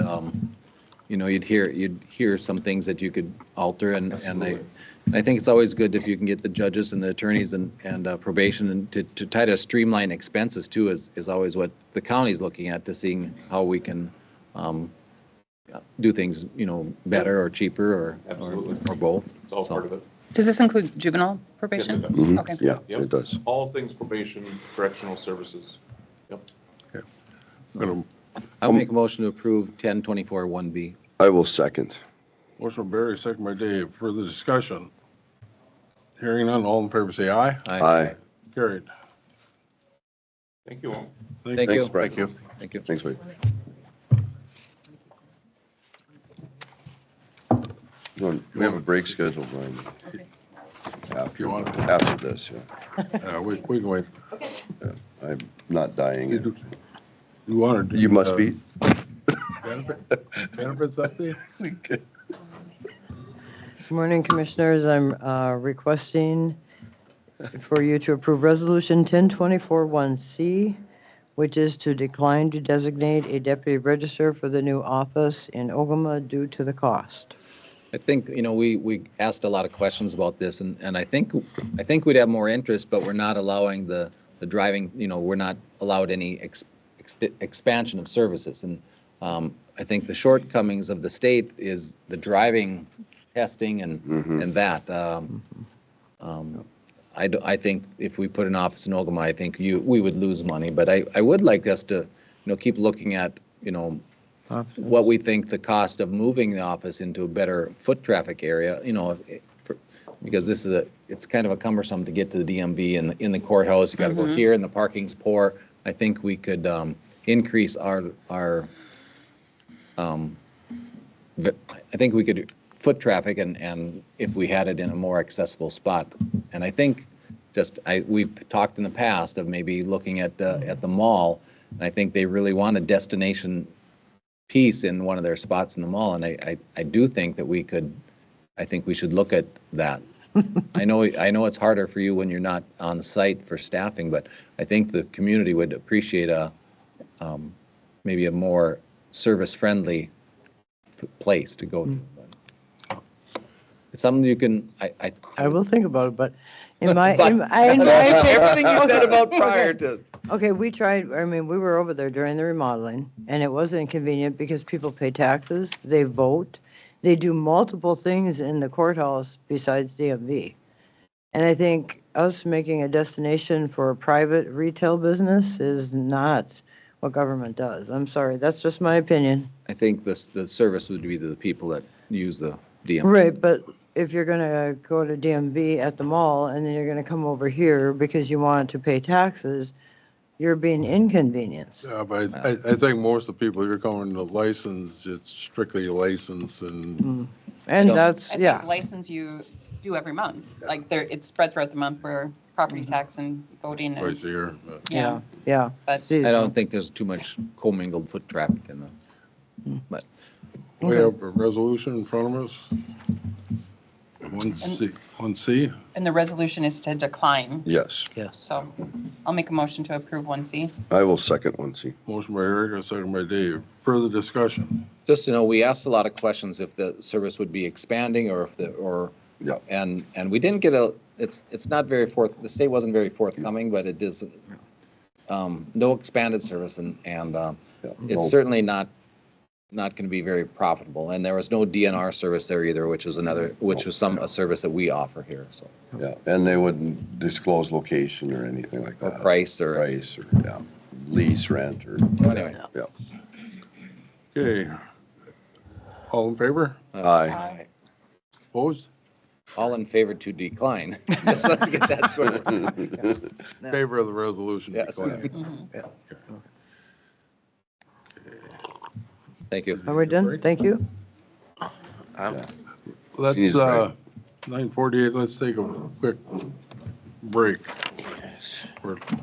um, you know, you'd hear, you'd hear some things that you could alter and, and I, and I think it's always good if you can get the judges and the attorneys and, and uh, probation and to, to try to streamline expenses too is, is always what the county's looking at to seeing how we can, um, do things, you know, better or cheaper or, or Absolutely. or both. It's all part of it. Does this include juvenile Yes, it probation? does. Mhm. Okay. Yeah, Yep. it does. All things probation, correctional services. Yep. Gonna- I'll make a motion to approve ten twenty-four one B. I will second. Motion by Barry, second by Dave. Further discussion? Hearing none, all in favor say aye. Aye. Carried. Thank you all. Thank you. Thanks, Brad. Thank you. Thank you. Thanks, Mike. Come on, We have a break scheduled, Brian. If you want, to- After this, yeah. uh, we, we can wait. I'm not You dying. do- Uh, You want to. You must be. Benefits update? Good morning, Commissioners. I'm uh, requesting for you to approve Resolution 10241C, which is to decline to designate a deputy register for the new office in Ogama due to the cost. I think, you know, we, we asked a lot of questions about this and, and I think, I think we'd have more interest, but we're not allowing the, the driving, you know, we're not allowed any ex, ex- expansion of services. And um, I think the shortcomings of the state is the driving testing and, and that. Um, um, I, do- I think if we put an office in Ogama, I think you, we would lose money, but I, I would like us to, you know, keep looking at, you know, what we think the cost of moving the office into a better foot traffic area, you know, it- for- because this is a, it's kind of a cumbersome to get to the DMV and in the courthouse, you gotta go here and the parking's poor. I think we could um, increase our, our, um, but I think we could foot traffic and, and if we had it in a more accessible spot. And I think just, I, we've talked in the past of maybe looking at, the at the mall. And I think they really want a destination piece in one of their spots in the mall, and I, I, I do think that we could, I think we should look at that. I know, I know it's harder for you when you're not on site for staffing, but I think the community would appreciate a, um, maybe a more service-friendly p- place to go. to. It's something you can, I, I. I will think about it, but in my, in But- my. in my- Everything you said about prior to. Okay, we tried, I mean, we were over there during the remodeling, and it was inconvenient because people pay taxes, they vote, they do multiple things in the courthouse besides DMV. And I think us making a destination for a private retail business is not what government does. I'm sorry, that's just my opinion. I think this, the service would be to the people that use the DM. Right, but if you're gonna go to DMV at the mall and then you're gonna come over here because you want to pay taxes, you're being inconvenienced. Yeah, Uh, but I, I think most of the people, you're calling the license, it's strictly license and And don't- that's, I yeah. think license you do every month. Like there, it's spread throughout the month where property Mm-hmm. tax and voting twice is, a year. but- yeah, Yeah. but Geez, I don't think there's too much commingled foot traffic in the, but We have a resolution in front of us. One C, one C. and the resolution is to decline. Yes, Yes. So I'll make a motion to approve 1C. I will second one, see. Motion by Eric, second by Dave. Further discussion? just to know, we asked a lot of questions if the service would be expanding or if the, or, Yeah. and, and we didn't get a, it's, it's not very forth, the state wasn't very forthcoming, but it is, um, no expanded service and, and, um, Yeah. Oh, it's certainly not, not going to be very profitable. And there was no DNR service there either, which is another, which is some, a service that we offer here, so, Yeah, and they wouldn't disclose location or anything like or that. price or, Price or, yeah, lease, rent, or, anyway. yeah. Okay. All in favor? Uh, Aye. Opposed? All in favor to decline. Just let's get that squared. Favor of the resolution. Yes. declined. Thank you. Are we done? Thank you. Let's, Jeez, uh, 9:48, let's take a quick break. We're